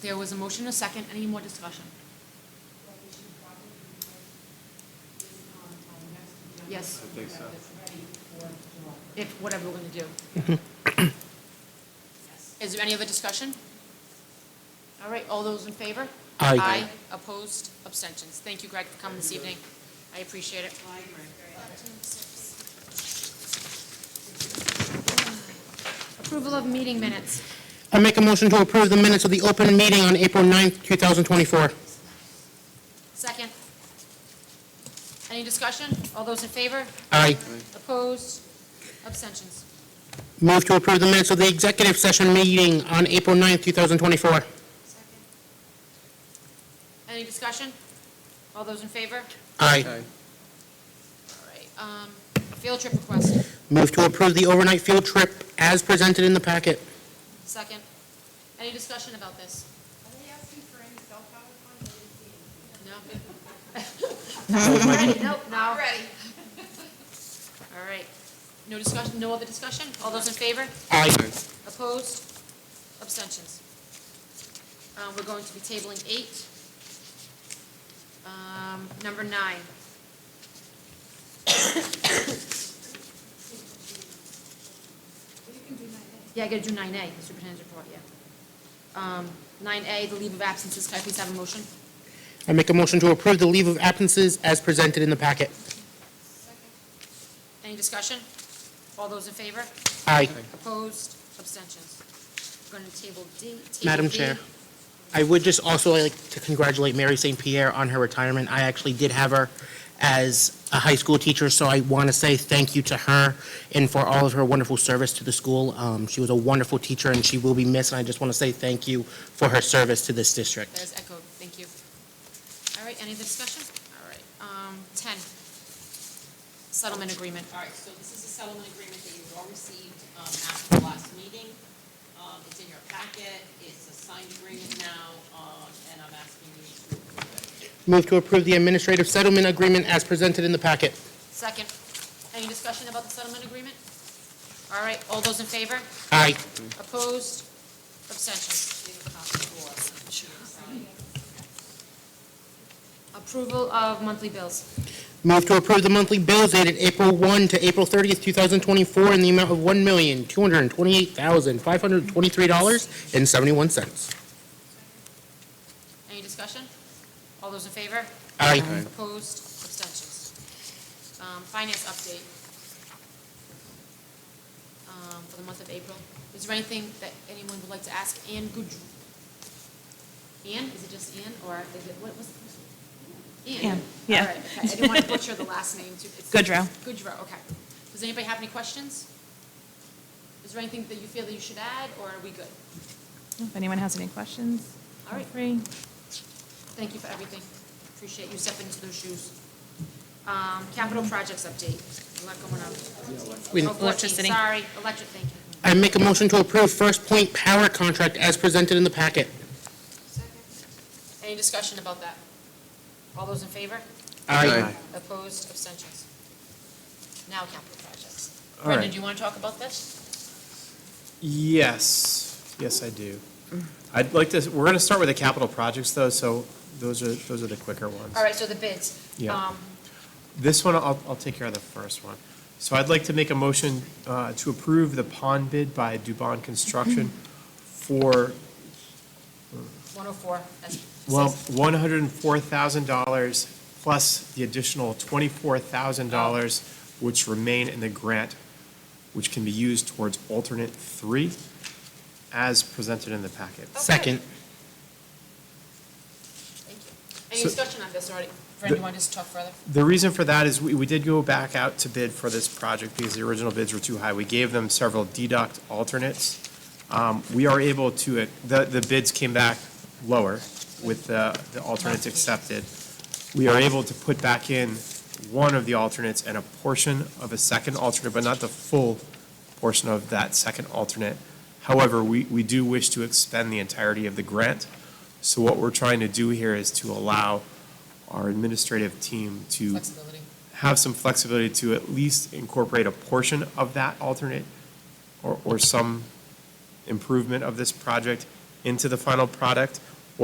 There was a motion, a second, any more discussion? that we should probably do this on our next agenda. Yes. so I we have this ready for July. If, whatever we're gonna do. Yes. Is there any other discussion? All right, all those in favor? Aye. opposed, abstentions. Thank you, Greg, for coming this evening. I appreciate it. Approval of meeting minutes. I make a motion to approve the minutes of the open meeting on April 9th, 2024. Second. Any discussion? All those in favor? Aye. Opposed? Abstentions. Move to approve the minutes of the executive session meeting on April 9th, 2024. Any discussion? All those in favor? All Aye. right, um, field trip request. Move to approve the overnight field trip as presented in the packet. Second. Any discussion about this? Are they asking for any self-help on the team? No? Ready? Nope, no. Ready. All right. No discussion, no other discussion? All those in favor? Aye. Opposed? Abstentions? Uh, We're going to be tabling eight. Um, Number nine. Yeah, I gotta do nine A, the superintendent's report, yeah. Nine A, the leave of absences, can I please have a motion? I make a motion to approve the leave of absences as presented in the packet. Any discussion? All those in favor? Aye. Opposed? Abstentions? We're going to table D. table Madam B. Chair, I would just also like to congratulate Mary St. Pierre on her retirement. I actually did have her as a high school teacher, so I want to say thank you to her and for all of her wonderful service to the school. Um, She was a wonderful teacher, and she will be missed, and I just want to say thank you for her service to this That district. is echoed, thank you. All right, any other discussion? All right, um, ten, settlement agreement. All right, so this is a settlement agreement that you all received um, after the last meeting. Um, It's in your packet, it's a signed agreement now, um, and I'm asking you to approve it. Move to approve the administrative settlement agreement as presented in the packet. Second, any discussion about the settlement agreement? All right, all those in favor? Aye. Opposed? Abstentions? Leave a copy for us. Approval of monthly bills. Move to approve the monthly bills dated April 1 to April 30th, 2024, in the amount of $1,228,523.71. Any discussion? All those in favor? Aye. Opposed? Abstentions? Um, finance update. Um, for the month of April. Is there anything that anyone would like to ask Ann Goodr? Ann, is it just Ann, or is it, what was? Ann, Ann, yeah. All right, okay. I didn't want to butcher the last name too. It's- Goodrow. Goodrow, okay. Does anybody have any questions? Is there anything that you feel that you should add, or are we good? If anyone has any questions, All feel right. free. Thank you for everything. Appreciate you stepping into those shoes. Um, capital projects update. A lot going on. We- Oh, 14, Electricity. Sorry, electric, thank you. I make a motion to approve First Point Power Contract as presented in the packet. Any discussion about that? All those in favor? Opposed, abstentions? Now capital projects. All Brenda, right. do you want to talk about this? Yes, yes, I do. I'd like to, we're going to start with the capital projects, though, so those are, those are the quicker ones. All right, so the bids. Yeah. Um, This one, I'll, I'll take care of the first one. So I'd like to make a motion uh, to approve the pond bid by Dubon Construction for, 104, that's. well, $104,000 plus the additional $24,000 which remain in the grant, which can be used towards alternate three, as presented in the packet. Second. Thank you. Any So- discussion on this already? Brenda, you want to just talk further? The reason for that is we, we did go back out to bid for this project because the original bids were too high. We gave them several deduct alternates. Um, we are able to, the, the bids came back lower with the, the alternates accepted. We are able to put back in one of the alternates and a portion of a second alternate, but not the full portion of that second alternate. However, we, we do wish to expend the entirety of the grant. So what we're trying to do here is to allow our administrative team to Flexibility. have some flexibility to at least incorporate a portion of that alternate or, or some improvement of this project into the final product